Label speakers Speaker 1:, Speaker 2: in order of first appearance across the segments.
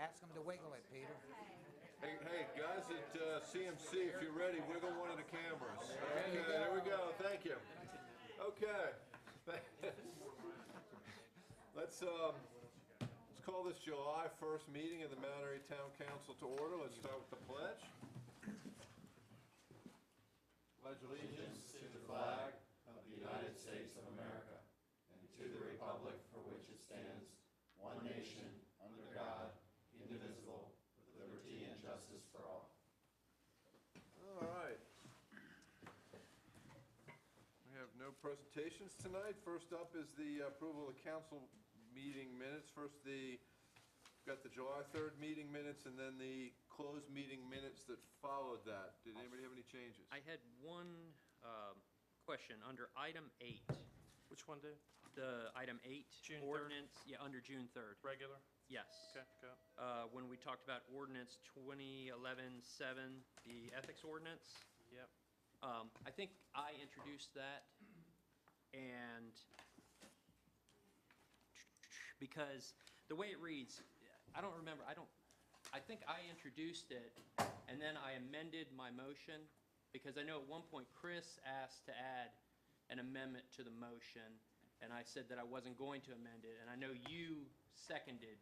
Speaker 1: Ask him to wiggle it, Peter.
Speaker 2: Hey, hey, guys at uh, CMC, if you're ready, wiggle one of the cameras. Okay, there we go. Thank you. Okay. Let's, um, let's call this July 1st meeting of the Mount Airy Town Council to order. Let's start with the pledge. Pledge allegiance.
Speaker 3: allegiance to the flag of the United States of America and to the republic for which it stands, one nation, under God, indivisible, with liberty and justice for all.
Speaker 2: All right. We have no presentations tonight. First up is the approval of council meeting minutes. First, the, got the July 3rd meeting minutes and then the closed meeting minutes that followed that. Did anybody have any changes?
Speaker 4: I had one um, question, under item eight,
Speaker 5: Which one, Dave?
Speaker 4: the item eight.
Speaker 5: June third.
Speaker 4: Ordinance, yeah, under June 3rd,
Speaker 5: Regular?
Speaker 4: yes.
Speaker 5: Okay, got it.
Speaker 4: Uh, When we talked about ordinance 2011-7, the ethics ordinance,
Speaker 5: Yep.
Speaker 4: um, I think I introduced that, and because the way it reads, I don't remember, I don't, I think I introduced it, and then I amended my motion, because I know at one point Chris asked to add an amendment to the motion, and I said that I wasn't going to amend it, and I know you seconded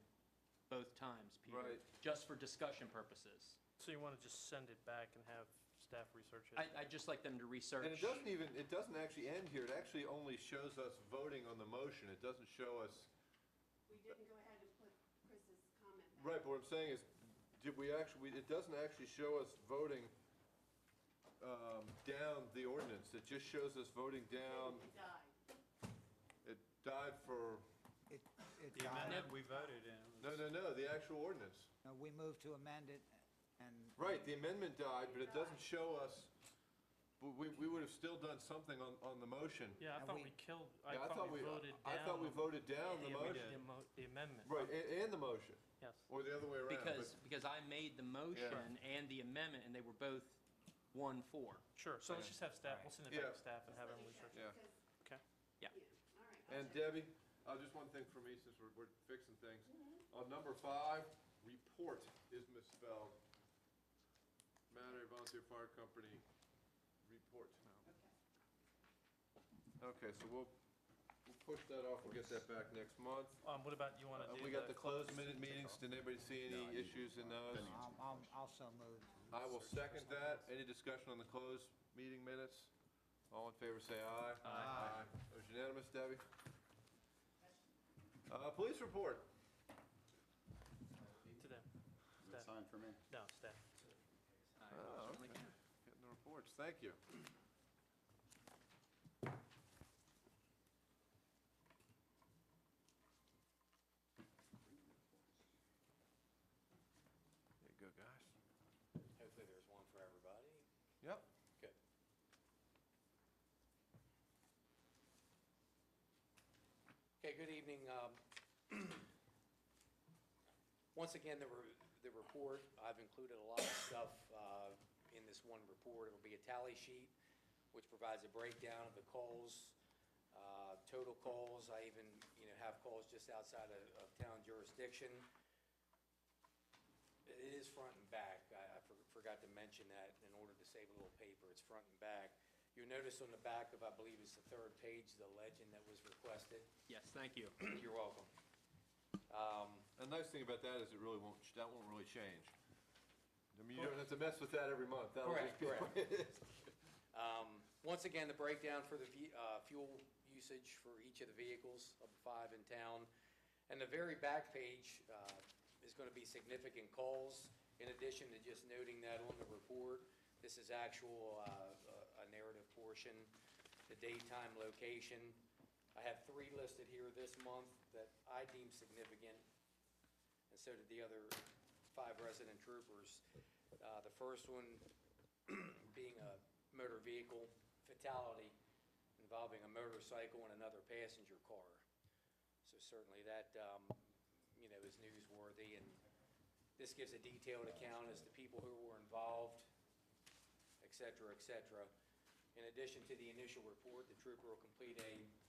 Speaker 4: both times, Peter.
Speaker 2: Right.
Speaker 4: Just for discussion purposes.
Speaker 5: So you want to just send it back and have staff research it?
Speaker 4: I, I'd just like them to research.
Speaker 2: And it doesn't even, it doesn't actually end here. It actually only shows us voting on the motion. It doesn't show us,
Speaker 6: We didn't go ahead and put Chris's comment back.
Speaker 2: right, but what I'm saying is, did we actually, it doesn't actually show us voting um, down the ordinance. It just shows us voting down
Speaker 6: It died.
Speaker 2: It died for,
Speaker 1: It, it
Speaker 7: The
Speaker 1: died.
Speaker 7: amendment we voted in. was-
Speaker 2: no, no, no, the actual ordinance.
Speaker 1: No, We moved to amend it and
Speaker 2: Right, the amendment died, but it doesn't show us, but we, we would have still done something on, on the motion.
Speaker 5: Yeah, I
Speaker 1: And
Speaker 5: thought
Speaker 1: we-
Speaker 5: we killed,
Speaker 2: Yeah,
Speaker 5: I thought we voted down.
Speaker 2: I thought we voted down the
Speaker 5: the amend-
Speaker 2: motion.
Speaker 5: the amo- The amendment.
Speaker 2: Right, and, and the motion,
Speaker 5: Yes.
Speaker 2: or the other way around. but-
Speaker 4: Because, because I made the motion and the amendment, and they were both one, four.
Speaker 5: Sure, so let's just have staff, we'll send it
Speaker 2: Yeah.
Speaker 5: back to staff and have them research it.
Speaker 2: Yeah.
Speaker 6: Because-
Speaker 5: Okay.
Speaker 4: Yeah.
Speaker 6: all right, I'll
Speaker 2: And
Speaker 6: check.
Speaker 2: Debbie, uh, just one thing for me, since we're, we're fixing things. On number five, report is misspelled. Mount Airy Volunteer Fire Company, report. Okay, so we'll, we'll push that off, we'll get that back next month.
Speaker 5: Um, what about, you want
Speaker 2: Uh,
Speaker 5: to do?
Speaker 2: We got the closed minute meetings, did anybody see any issues in those?
Speaker 1: I'll- um, I'll also moved.
Speaker 2: I will second that, any discussion on the closed meeting minutes? All in favor, say aye. Aye. Motion unanimous, Debbie? Uh, police report.
Speaker 5: To them.
Speaker 3: Is it
Speaker 5: Staff.
Speaker 3: signed for me?
Speaker 5: No, staff.
Speaker 2: Oh, okay. Getting the reports, thank you. There you go, guys.
Speaker 8: Hopefully there's one for everybody.
Speaker 2: Yep.
Speaker 8: Good. Okay, good evening. Um, Once again, the, re- the report, I've included a lot of stuff uh, in this one report. It'll be a tally sheet, which provides a breakdown of the calls, uh, total calls. I even, you know, have calls just outside of of town jurisdiction. It is front and back. I, I for- forgot to mention that in order to save a little paper, it's front and back. You'll notice on the back of, I believe it's the third page, the legend that was requested.
Speaker 4: Yes, thank you.
Speaker 8: You're welcome. Um,
Speaker 2: The nice thing about that is it really won't, that won't really change. I mean, you don't have to mess with that every month. That'll just
Speaker 8: Correct,
Speaker 2: be the way it
Speaker 8: correct.
Speaker 2: is.
Speaker 8: Um, Once again, the breakdown for the ve- uh, fuel usage for each of the vehicles of the five in town. And the very back page uh, is going to be significant calls. In addition to just noting that on the report, this is actual, uh, a a narrative portion, the daytime location. I have three listed here this month that I deem significant and so did the other five resident troopers. Uh, The first one being a motor vehicle fatality involving a motorcycle and another passenger car. So certainly that, um, you know, is newsworthy, and this gives a detailed account as to people who were involved, et cetera, et cetera. In addition to the initial report, the trooper will complete a